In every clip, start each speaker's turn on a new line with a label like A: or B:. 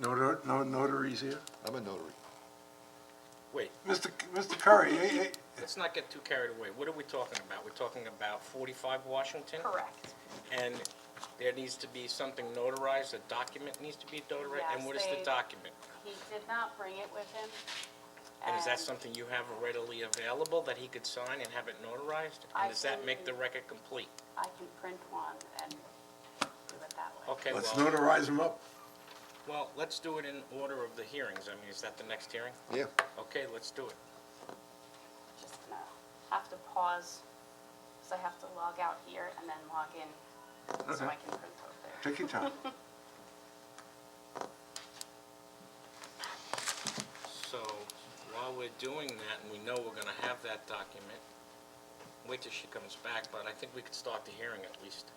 A: Notar- No notaries here?
B: I'm a notary.
C: Wait,
A: Mr. C- Mr. Curry, eh, eh,
C: let's not get too carried away. What are we talking about? We're talking about 45 Washington?
D: Correct.
C: And there needs to be something notarized, a document needs to be notarized? And
D: Yes,
C: what is the
D: they-
C: document?
D: He did not bring it with him.
C: And is that
D: and
C: something you have readily available that he could sign and have it notarized?
D: I
C: And does that make the
D: can-
C: record complete?
D: I can print one and do it that way.
C: Okay,
A: let's
C: well,
A: notarize them up.
C: well, let's do it in order of the hearings. I mean, is that the next hearing?
B: Yeah,
C: Okay, let's do it.
D: Just gonna have to pause, because I have to log out here and then log in, so I
A: Okay.
D: can print over there.
A: Take your time.
C: So while we're doing that, and we know we're gonna have that document, wait till she comes back, but I think we could start the hearing at least.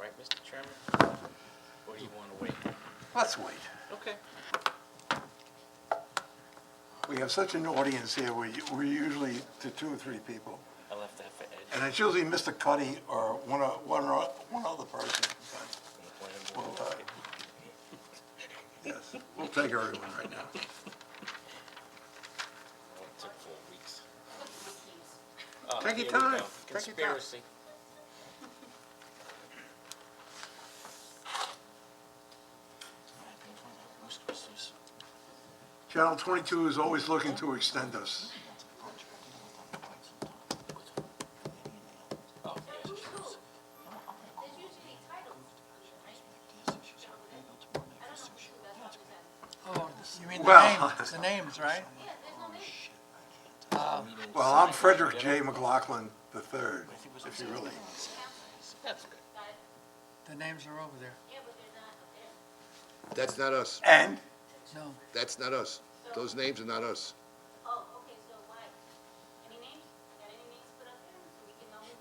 C: Right, Mr. Chairman? Or do you wanna wait?
A: Let's wait.
C: Okay.
A: We have such an audience here, we- we're usually to two or three people.
C: I left that for Ed
A: And it's usually Mr. Cuddy or one o- one or- one other person.
C: from the planning
A: We'll,
C: board.
A: uh, Yes, we'll take everyone right now.
C: Well, It took four weeks.
A: Take your
C: Oh, Here we
A: time.
C: go.
A: Take your time.
C: Conspiracy.
A: Channel 22 is always looking to extend us.
E: Oh, you mean the
A: Well-
E: names, the names, right?
A: Well, I'm Frederick J. McLaughlin III, if you really,
C: That's good.
E: The names are over there.
B: that's not us.
A: and
E: No,
B: That's not us. Those names are not us.
F: Oh, okay, so why? Any names? Got any names put up there so we can know who's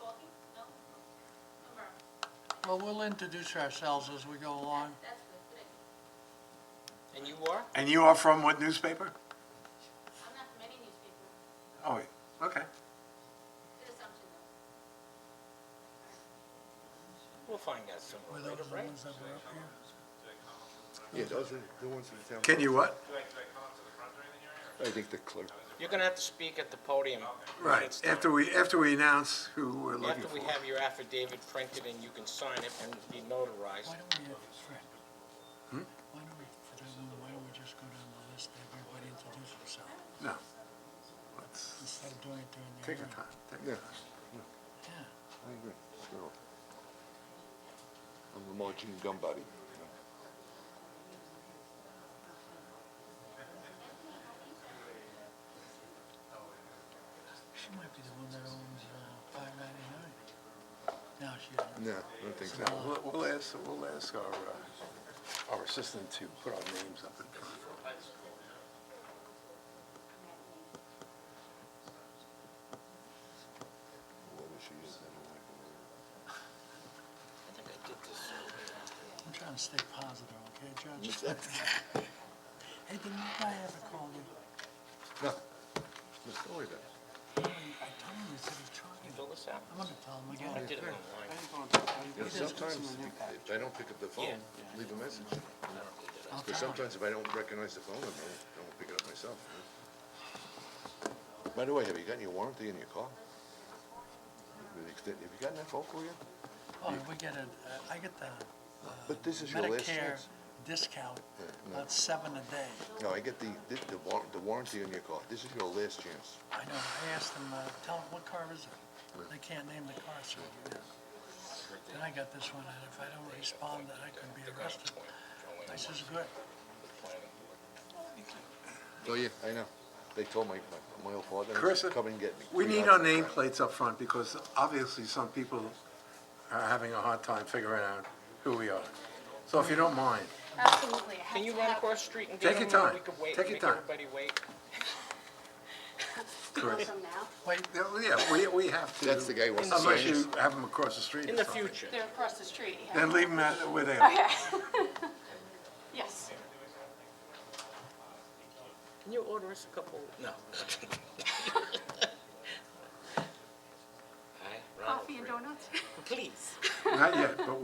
F: talking? No? Number,
E: well, we'll introduce ourselves as we go along.
F: that's good, good idea.
C: And you are?
A: and you are from what newspaper?
F: I'm not from any newspaper,
A: Oh, wait, okay.
F: good assumption though.
C: We'll find out sooner
E: Were
C: or
E: those
C: later,
E: the
C: right?
E: ones that were up here?
B: Yeah, those are the ones in the
A: Can you what?
B: I think the clerk.
C: You're gonna have to speak at the podium. when
A: Right,
C: it's time.
A: after we, after we announce who we're looking
C: After
A: for.
C: we have your affidavit printed and you can sign it and be notarized.
E: Why don't we, have Fred? Why don't we, for that one, why don't we just go down the list and everybody introduce themselves
A: No. Let's
E: instead of doing it during the
A: take your
E: hearing?
A: time, take your
B: Yeah.
A: time.
E: Yeah.
B: I agree. Sure. I'm Lamar Jean Gumbody.
E: She might be the one that owns, uh, five ninety-nine. No, she doesn't.
B: No, I don't think so.
A: We'll, we'll ask, we'll ask our, uh, our assistant to put our names up in front.
C: I think I did this.
E: I'm trying to stay positive, okay, Judge? Hey, didn't you guy ever call you?
B: No. Mr. Story then.
E: I told him, he said he's
C: Fill
E: trying.
C: this out.
E: I'm gonna tell him
C: Oh, I
E: again.
C: did it online.
B: You know, sometimes if I don't pick up the phone, leave a message.
E: I'll
B: Because
E: tell him.
B: sometimes if I don't recognize the phone, I don't, I won't pick it up myself. you know. By the way, have you gotten your warranty in your car? Have you extended- have you gotten that phone call yet?
E: Oh, we get a, I get the uh,
B: But this is your last
E: Medicare
B: chance.
E: discount, about seven a day.
B: No, I get the, the- the war, the warranty on your car. This is your last chance.
E: I know, I asked them, uh, tell them, what car is it? They can't name the car, so. you know. Then I got this one, and if I don't respond, then I can be arrested. I says, good.
B: Oh, yeah, I know. They told my, my- my old father, I
A: Carissa,
B: said, come and get me.
A: we
B: Three
A: need our
B: hours in the back.
A: nameplates up front because obviously some people are having a hard time figuring out who we are. So if you don't mind,
D: Absolutely. I
C: Can
D: have
C: you
D: to
C: run
D: have-
C: across the street and
A: Take
C: get
A: your
C: them, or we
A: time.
C: could wait,
A: Take your
C: make
A: time.
C: everybody wait?
D: Go
A: Correct.
D: from now?
E: Wait,
A: yeah, yeah, we, we have to.
B: That's the guy who wants to
A: Unless
B: sign
A: you have them across the street
C: In
A: or
C: the
A: something.
C: future.
D: They're across the street, yeah.
A: Then leave them at where they are.
D: Okay. Yes.
C: Can you order us a couple? No. Hi, Ronald
D: Coffee and
C: Reagan.
D: donuts?
C: Please.
A: Not yet, but